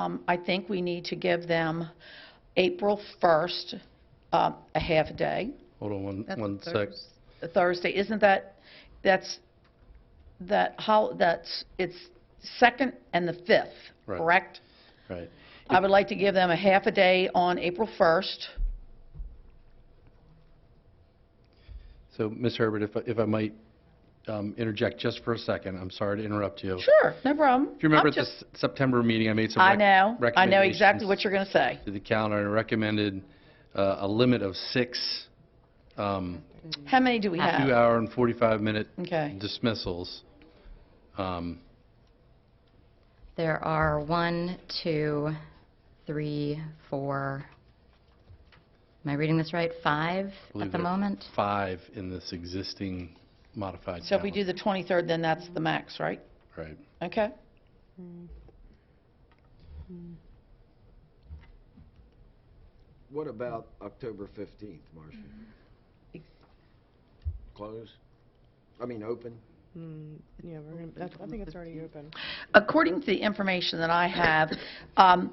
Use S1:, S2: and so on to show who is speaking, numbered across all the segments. S1: Um, I think we need to give them April 1st, uh, a half a day.
S2: Hold on one,
S3: That's
S2: one sec.
S3: Thursday.
S1: Thursday, isn't that, that's, that, how, that's, it's 2nd and the 5th,
S2: Right.
S1: correct?
S2: Right.
S1: I would like to give them a half a day on April 1st.
S2: So, Ms. Herbert, if, I- if I might um, interject just for a second, I'm sorry to interrupt you.
S1: Sure, no problem.
S2: If you
S1: I'm
S2: remember at the
S1: just-
S2: S- September meeting, I made some
S1: I
S2: rec-
S1: know,
S2: recommendations.
S1: I know exactly what you're going to say.
S2: To the calendar, and recommended uh, a limit of six um,
S1: How many do we have?
S2: two-hour and 45-minute
S1: Okay.
S2: dismissals. Um,
S3: There are one, two, three, four, am I reading this right? Five
S2: I believe
S3: at the
S2: there are
S3: moment?
S2: Five in this existing modified calendar.
S1: So if we do the 23rd, then that's the max, right?
S2: Right.
S1: Okay.
S4: What about October 15th, Marcia? Close? I mean, open?
S5: Mm, Yeah, we're gonna, that's- I think it's already open.
S1: According to the information that I have, um,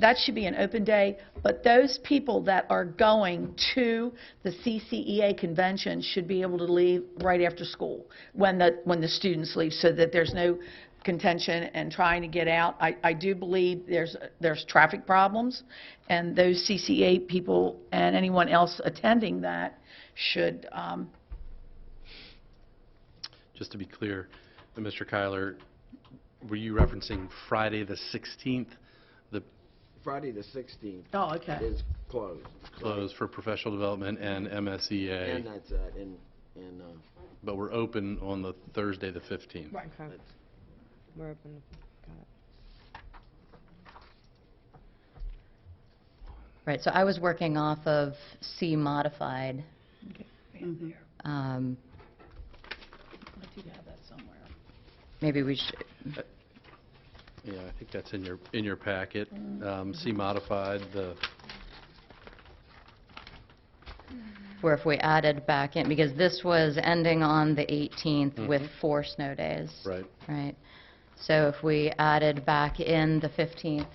S1: that should be an open day, but those people that are going to the CCEA convention should be able to leave right after school, when the, when the students leave, so that there's no contention and trying to get out. I, I do believe there's, there's traffic problems, and those CCA people and anyone else attending that should, um,
S2: Just to be clear, uh, Mr. Kyler, were you referencing Friday, the 16th, the
S4: Friday, the 16th
S1: oh, okay.
S4: is closed.
S2: close for professional development and
S4: And uh,
S2: MSEA,
S4: that's that, and, and, uh,
S2: but we're open on the Thursday, the 15th?
S5: Okay. We're open, got it.
S3: Right, so I was working off of C modified.
S1: Mhm.
S3: Um,
S1: I do have that somewhere.
S3: Maybe we should,
S2: Yeah, I think that's in your, in your packet. Um, See modified, the,
S3: or if we added back in, because this was ending on the 18th with four snow days.
S2: Mm-hmm. right,
S3: Right. So if we added back in the 15th,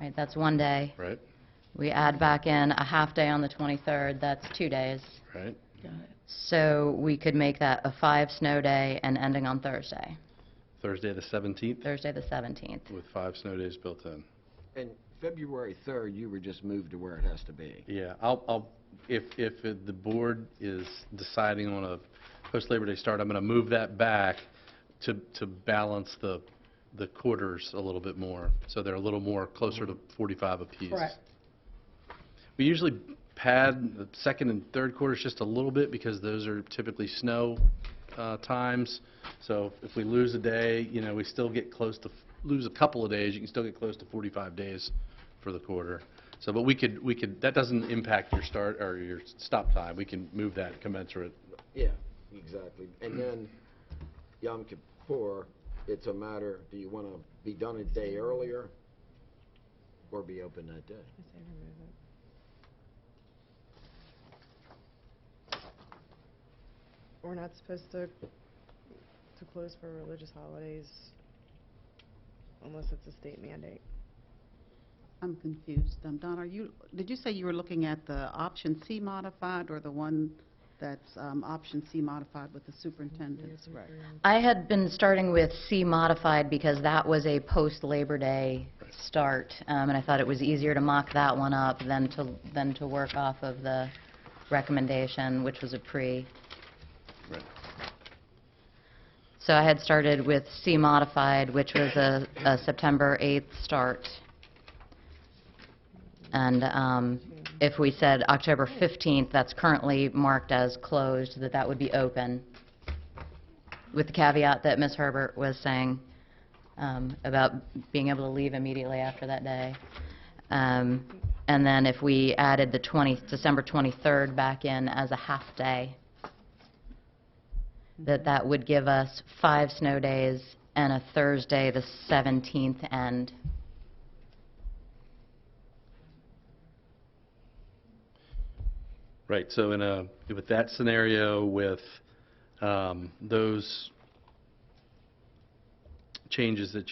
S3: right, that's one day.
S2: right,
S3: We add back in a half day on the 23rd, that's two days.
S2: right?
S1: Got it.
S3: So we could make that a five snow day and ending on Thursday,
S2: Thursday, the 17th,
S3: Thursday the 17th.
S2: with five snow days built in.
S4: and February 3rd, you were just moved to where it has to be.
S2: Yeah, I'll, I'll, if, if it- the board is deciding on a post-Labor Day start, I'm going to move that back to, to balance the, the quarters a little bit more, so they're a little more closer to 45 apiece.
S1: Correct.
S2: We usually pad the second and third quarters just a little bit, because those are typically snow uh, times, so if we lose a day, you know, we still get close to, lose a couple of days, you can still get close to 45 days for the quarter. So, but we could, we could, that doesn't impact your start, or your stop time, we can move that commensurate.
S4: Yeah, exactly. And then Yom Kippur, it's a matter, do you want to be done a day earlier or be open that day?
S5: We're not supposed to, to close for religious holidays unless it's a state mandate.
S6: I'm confused. Um, Don, are you, did you say you were looking at the option C modified or the one that's um, option C modified with the superintendent's rec?
S3: I had been starting with C modified because that was a post-Labor Day start, um, and I thought it was easier to mock that one up than to, than to work off of the recommendation, which was a pre.
S2: Right.
S3: So I had started with C modified, which was a, a September 8th start. And um, if we said October 15th, that's currently marked as closed, that that would be open, with the caveat that Ms. Herbert was saying um, about being able to leave immediately after that day. Um, And then if we added the 20, December 23rd back in as a half-day, that that would give us five snow days and a Thursday, the 17th end.
S2: Right, so in a, with that scenario, with um, those changes that